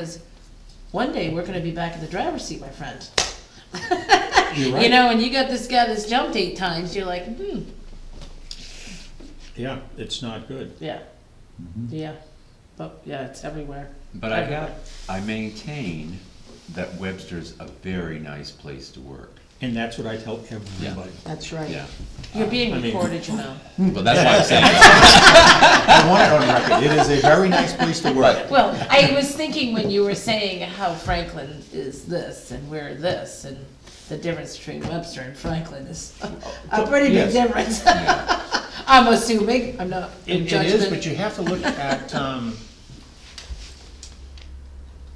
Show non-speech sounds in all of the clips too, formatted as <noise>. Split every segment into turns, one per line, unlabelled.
Because one day we're gonna be back in the driver's seat, my friend.
You're
You
right.
know, and you got this guy that's jumped eight times, you're like, hmm,
Yeah, it's not good.
yeah,
Mm-hmm.
yeah. But, yeah, it's everywhere.
But I
Everywhere.
have, I maintain that Webster's a very nice place to work.
And that's what I tell everybody.
That's right.
Yeah.
You're being
I mean-
recorded,
<laughs>
you know.
Well, that's why I'm saying,
I want it on record. It is a <laughs> very nice place to work.
Well, I was thinking when you were saying how Franklin is this and we're this and the difference between Webster and Franklin is <laughs> a pretty big
Yes.
difference. <laughs> I'm assuming, I'm not in
It, it is,
judgment.
but you have to look at, um,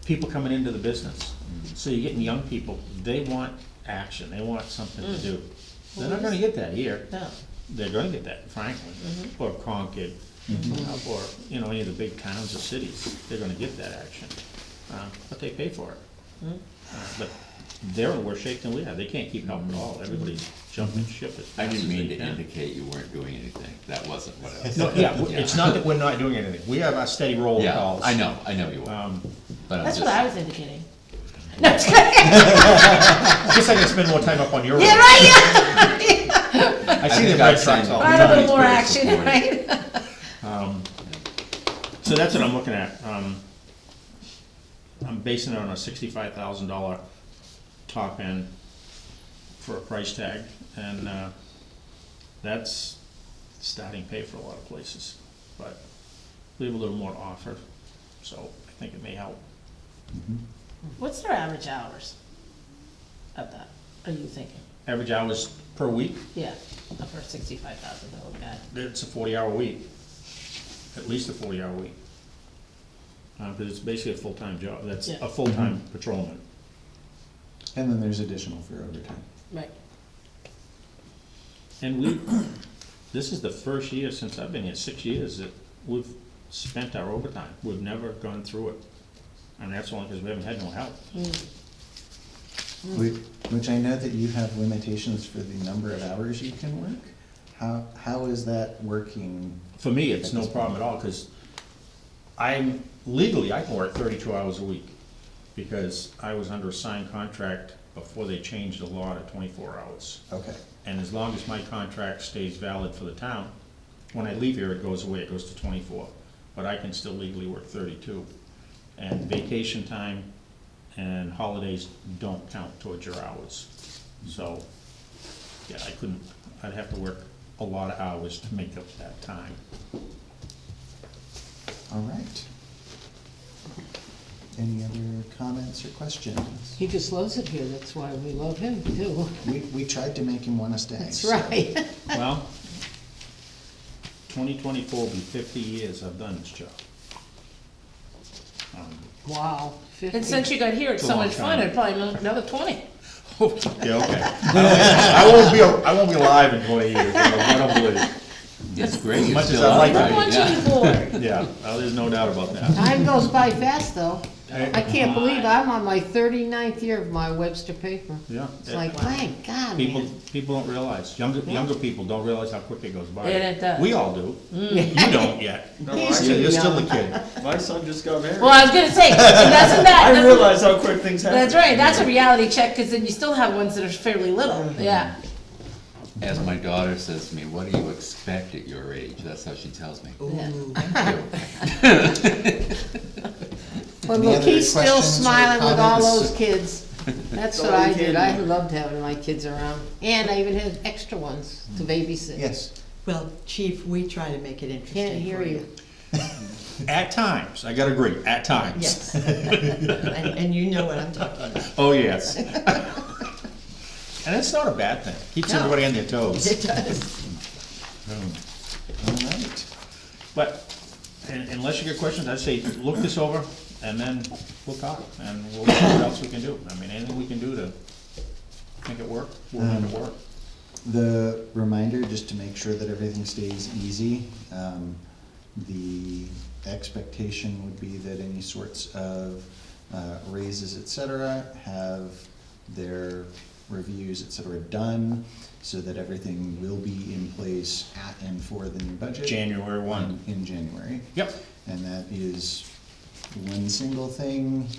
people coming into the business. So you're getting young people, they want action, they want something to do. They're not gonna get that here.
No.
They're gonna get that in Franklin,
Mm-hmm.
or Concord, or, you know, any of the big towns or cities. They're gonna get that action, um, but they pay for it.
Mm-hmm.
Uh, But they're in worse shape than we are. They can't keep it up at
Mm-hmm.
all. Everybody's jumping ship as
Mm-hmm. I
fast as
didn't mean
they
to
can.
indicate you weren't doing anything. That wasn't what I was
No,
saying.
yeah, w- it's not that we're not doing anything. We have a steady roll of
Yeah,
calls.
I know, I know you were,
Um,
but I'm
That's
just,
what I was indicating.
Guess I can spend more time up on your.
Yeah,
road.
right, yeah.
I
I
see the
think I've
red trucks
seen-
all the
Right, a
time.
little more
Very
action,
supportive.
right?
So that's what I'm looking at. Um, I'm basing it on a sixty-five thousand dollar top end for a price tag, and, uh, that's starting pay for a lot of places. But we have a little more to offer, so I think it may help.
What's their average hours of that, are you thinking?
Average hours per week,
Yeah, of her sixty-five thousand dollar guy.
it's a forty-hour week, at least a forty-hour week. Uh, because it's basically a full-time job, that's
Yeah.
a full-time patrolman.
And then there's additional for overtime.
Right.
And we, this is the first year since I've been here, six years, that we've spent our overtime. We've never gone through it. And that's only because we haven't had no help.
Mm.
Whi- Which I know that you have limitations for the number of hours you can work. How, how is that working?
For me, it's no problem at all, because I'm, legally, I can work thirty-two hours a week. Because I was under a signed contract before they changed the law to twenty-four hours.
Okay,
And as long as my contract stays valid for the town, when I leave here, it goes away, it goes to twenty-four. But I can still legally work thirty-two. And vacation time and holidays don't count towards your hours. So, yeah, I couldn't, I'd have to work a lot of hours to make up that time.
all right. Any other comments or questions?
He just loves it here, that's why we love him
<laughs>
too.
We, we tried to make him want to stay.
That's
so-
right.
Well, twenty twenty-four will be fifty years I've done this job. Um,
Wow,
And
fifty.
since you got here, it's
It's a
so
long
much fun,
time.
it'd probably be another twenty.
Yeah, <laughs> okay. I won't be, I won't be alive in twenty years, you know, I don't believe.
it's great, you're
Much as
still
I like
on, right,
it.
yeah.
Punching board.
Yeah, well, there's no doubt about that.
Time goes by fast though.
Hey.
I can't believe I'm on my 39th year of my Webster paper.
Yeah.
It's like, thank God,
People,
man.
people don't realize, younger, younger people don't realize how quick it goes by.
Yeah, it does.
We all do. You don't yet.
He's
You're
too
you're still a
young.
kid.
My son just got married.
Well, I was gonna say, and that's not that.
I
that's-
realize how quick things happen.
That's right, that's a reality check, cause then you still have ones that are fairly little, yeah.
As my daughter says to me, what do you expect at your age? That's how she tells me.
yeah.
But
Any
look,
other
he's still
questions or
smiling with all
comments?
those
<laughs>
kids. That's
Don't
what I
leave
did,
him.
I loved having my kids around, and I even had extra ones to babysit.
Yes,
Well, Chief, we try to make it interesting
Can't hear
for
you.
At times, I gotta agree, at times.
Yes. <laughs> And, and you know what I'm talking about.
Oh, yes. And it's not a bad thing. Keeps
No.
everybody on their toes.
<laughs>
It does.
all right.
But un- unless you get questions, I'd say look this over and then we'll talk and we'll see what else we can do. I mean, anything we can do to make it work, we're going to work.
The reminder, just to make sure that everything stays easy, um, the expectation would be that any sorts of uh, raises, et cetera, have their reviews, et cetera, done, so that everything will be in place at and for the new budget.
January one.
In January.
Yep.
And that is one single thing.